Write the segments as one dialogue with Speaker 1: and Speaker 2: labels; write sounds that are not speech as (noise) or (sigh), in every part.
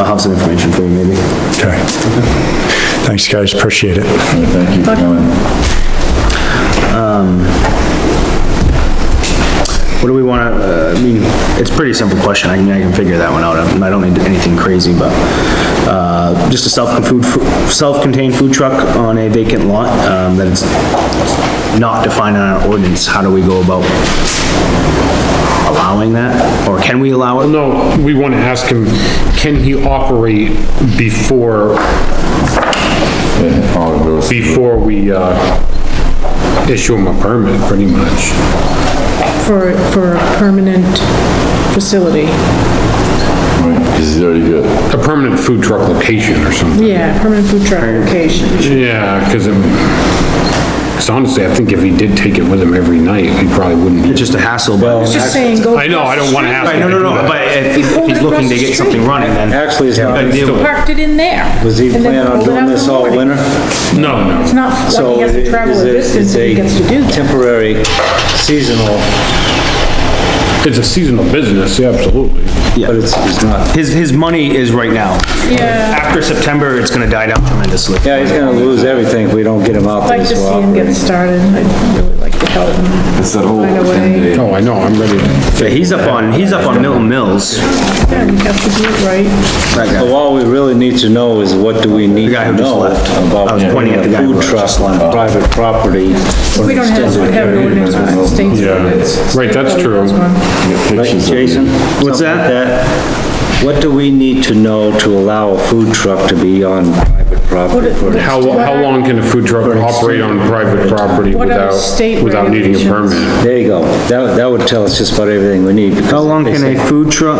Speaker 1: I'll have some information for you maybe.
Speaker 2: Okay. Thanks, guys, appreciate it.
Speaker 3: Thank you for coming.
Speaker 1: What do we wanna, uh, I mean, it's a pretty simple question, I can, I can figure that one out, I don't need anything crazy, but, uh, just a self-food, self-contained food truck on a vacant lot, um, that it's not defined in our ordinance, how do we go about allowing that, or can we allow it?
Speaker 4: No, we want to ask him, can he operate before,
Speaker 3: Yeah, all it goes-
Speaker 4: before we, uh, issue him a permit, pretty much?
Speaker 5: for, for a permanent facility.
Speaker 3: right, Cause he's already got,
Speaker 4: A permanent food truck location or something?
Speaker 5: Yeah, permanent food truck location.
Speaker 4: Yeah, because it, because honestly, I think if he did take it with him every night, he probably wouldn't.
Speaker 1: It's just a hassle, but.
Speaker 5: Just saying, go.
Speaker 4: I know, I don't want to ask
Speaker 1: Right,
Speaker 4: him
Speaker 1: no,
Speaker 4: to
Speaker 1: no,
Speaker 4: do
Speaker 1: no,
Speaker 4: that.
Speaker 1: but if if he's looking to get something running, then.
Speaker 6: Actually, it's not-
Speaker 1: You gotta deal with it.
Speaker 5: Parked it in there.
Speaker 6: Was he
Speaker 5: and then
Speaker 6: planning on
Speaker 5: pulled it out
Speaker 6: doing
Speaker 5: in
Speaker 6: this
Speaker 5: the
Speaker 6: all
Speaker 5: morning.
Speaker 6: winter?
Speaker 4: No, no.
Speaker 5: It's not like
Speaker 6: So
Speaker 5: he has
Speaker 6: it
Speaker 5: to travel a
Speaker 6: is a-
Speaker 5: distance if he gets to do
Speaker 6: It's a
Speaker 5: that.
Speaker 6: temporary seasonal,
Speaker 4: It's a seasonal business, yeah, absolutely.
Speaker 6: but it's, it's not,
Speaker 1: His, his money is right now.
Speaker 5: Yeah,
Speaker 1: After September, it's gonna die down tremendously.
Speaker 6: yeah, he's gonna lose everything if we don't get him out
Speaker 5: I'd
Speaker 6: there.
Speaker 5: like to
Speaker 6: so
Speaker 5: see him get
Speaker 6: operating.
Speaker 5: started. I'd really like to help him.
Speaker 3: it's that whole
Speaker 5: Find a way.
Speaker 3: ten day.
Speaker 4: Oh, I know, I'm ready.
Speaker 1: Yeah, he's up on, he's up on Milton Mills.
Speaker 5: Yeah, you have to do it right.
Speaker 6: But all we really need to know is what do we need
Speaker 1: The guy
Speaker 6: to
Speaker 1: who just
Speaker 6: know
Speaker 1: left. I
Speaker 6: about
Speaker 1: was pointing
Speaker 6: putting
Speaker 1: at the
Speaker 6: a
Speaker 1: guy who
Speaker 6: food
Speaker 1: just
Speaker 6: truck on private property. for
Speaker 5: We
Speaker 6: an
Speaker 5: don't have,
Speaker 6: extended
Speaker 5: have an
Speaker 6: period.
Speaker 5: ordinance on the state's
Speaker 4: Yeah.
Speaker 5: ordinance.
Speaker 4: Right, that's true.
Speaker 6: Right, Jason?
Speaker 1: What's
Speaker 6: Something like that. What do we need to know to allow a food truck to be on private property for? an
Speaker 4: How, how long can a food truck operate on private property
Speaker 5: What are
Speaker 4: without,
Speaker 5: state
Speaker 4: without needing a
Speaker 5: regulations?
Speaker 4: permit?
Speaker 6: There you go. That, that would tell us just about everything we need.
Speaker 1: How long can a food truck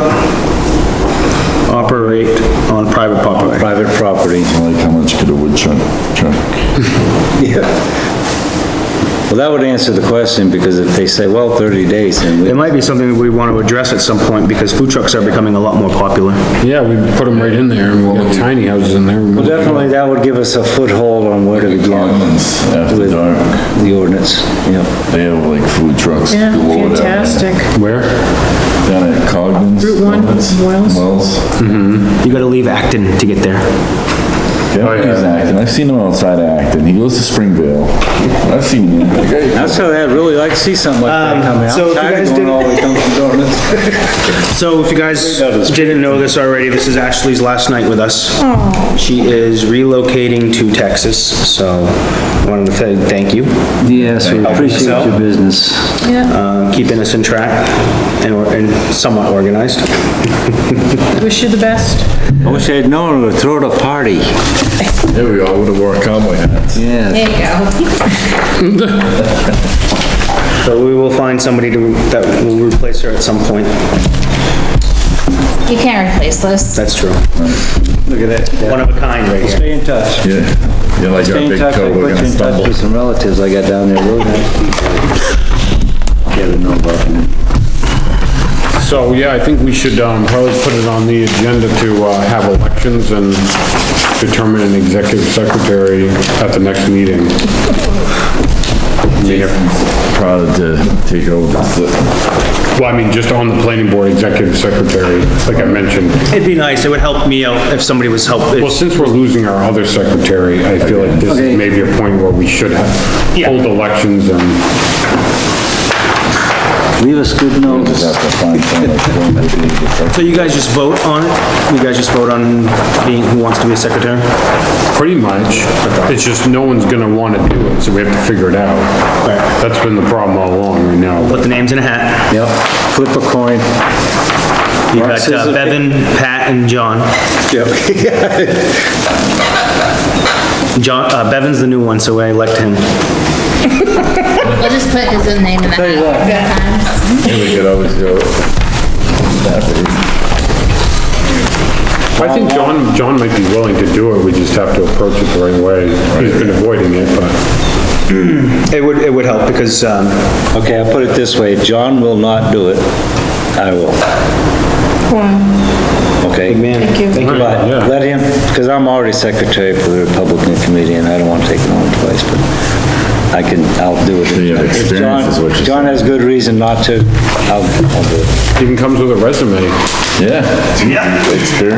Speaker 1: operate on private property?
Speaker 6: Private property.
Speaker 3: Like how much could a wood chuck, chuck?
Speaker 6: (laughs) Yeah. Well, that would answer the question, because if they say, well, 30 days, then
Speaker 1: It
Speaker 6: we...
Speaker 1: might be something that we want to address at some point, because food trucks are becoming a lot more popular.
Speaker 4: Yeah, we put them right in there, and we'll have tiny houses in there. Well,
Speaker 6: Definitely, that would give us a foothold on where to begin
Speaker 3: Apartments after
Speaker 6: with
Speaker 3: dark,
Speaker 6: the ordinance, yeah.
Speaker 3: they have like food trucks
Speaker 5: Yeah,
Speaker 3: galore down there.
Speaker 5: fantastic.
Speaker 4: Where?
Speaker 3: Down at Cogden's.
Speaker 5: Route one,
Speaker 3: Cogden's,
Speaker 5: Wells.
Speaker 3: Wells.
Speaker 1: You gotta leave Acton to get there.
Speaker 3: Oh, Yeah,
Speaker 4: yeah.
Speaker 3: he's acting, I've seen him outside acting, he goes to Springvale, I've seen him.
Speaker 6: That's how I'd really like to see something like that coming.
Speaker 1: so if
Speaker 6: I'm
Speaker 1: you
Speaker 6: tired
Speaker 1: guys
Speaker 6: of going
Speaker 1: didn't-
Speaker 6: all the way down to the (laughs) ordinance.
Speaker 1: So if you guys didn't know this already, this is Ashley's last night with us. She is relocating to Texas, so wanted to say thank you,
Speaker 6: Yes, we appreciate
Speaker 1: Help yourself.
Speaker 6: your business.
Speaker 5: Yeah,
Speaker 1: uh, keeping us in track and or- and somewhat organized.
Speaker 5: wish you the best.
Speaker 6: I wish I'd known we would throw at a party.
Speaker 3: There we go, would've worn cowboy hats.
Speaker 6: Yeah.
Speaker 5: There you go.
Speaker 1: So we will find somebody to, that will replace her at some point.
Speaker 7: You can't replace this.
Speaker 1: That's true. Look at that. One of a kind right here.
Speaker 6: Stay in touch.
Speaker 3: Yeah, yeah, like our
Speaker 6: Stay in
Speaker 3: big
Speaker 6: touch, I
Speaker 3: toe, we're
Speaker 6: put you
Speaker 3: gonna
Speaker 6: in touch
Speaker 3: stumble.
Speaker 6: with some relatives I got down there, real nice people. Get to know about them.
Speaker 4: So, yeah, I think we should, um, probably put it on the agenda to, uh, have elections and determine an executive secretary at the next meeting. I mean, if-
Speaker 3: Proud to take over this,
Speaker 4: Well, I mean, just on the planning board, executive secretary, like I mentioned.
Speaker 1: It'd be nice, it would help me out if somebody was help,
Speaker 4: Well, since we're losing our other secretary, I feel like this is maybe a point where we should have, hold elections and
Speaker 6: Leave us good notes.
Speaker 3: just have to find someone that's going to be the secretary.
Speaker 1: So you guys just vote on it? You guys just vote on being, who wants to be a secretary?
Speaker 4: Pretty much. It's just no one's gonna wanna do it, so we have to figure it out. That's been the problem all along right now.
Speaker 1: Put the names in a hat.
Speaker 6: Yep, flip a coin.
Speaker 1: You got uh,
Speaker 6: Scissors.
Speaker 1: Bevan, Pat, and John. John, uh, Bevan's the new one, so I elect him.
Speaker 7: We'll just put his own name in the hat.
Speaker 3: Yeah, We could always go.
Speaker 4: I think John, John might be willing to do it, we just have to approach it the right way. He's been avoiding it, but
Speaker 1: It would, it would help because, um,
Speaker 6: Okay, I'll put it this way, John will not do it, I will, okay?
Speaker 1: man,
Speaker 6: Think about it,
Speaker 4: Yeah.
Speaker 6: let him, because I'm already secretary for the Republican Committee, and I don't want to take it on twice, but I can, I'll do it.
Speaker 3: you have
Speaker 6: If
Speaker 3: experience
Speaker 6: John-
Speaker 3: is what you're
Speaker 6: John has good reason not to, I'll, I'll do it.
Speaker 4: even comes with a resume.
Speaker 3: Yeah. Yeah. Experience.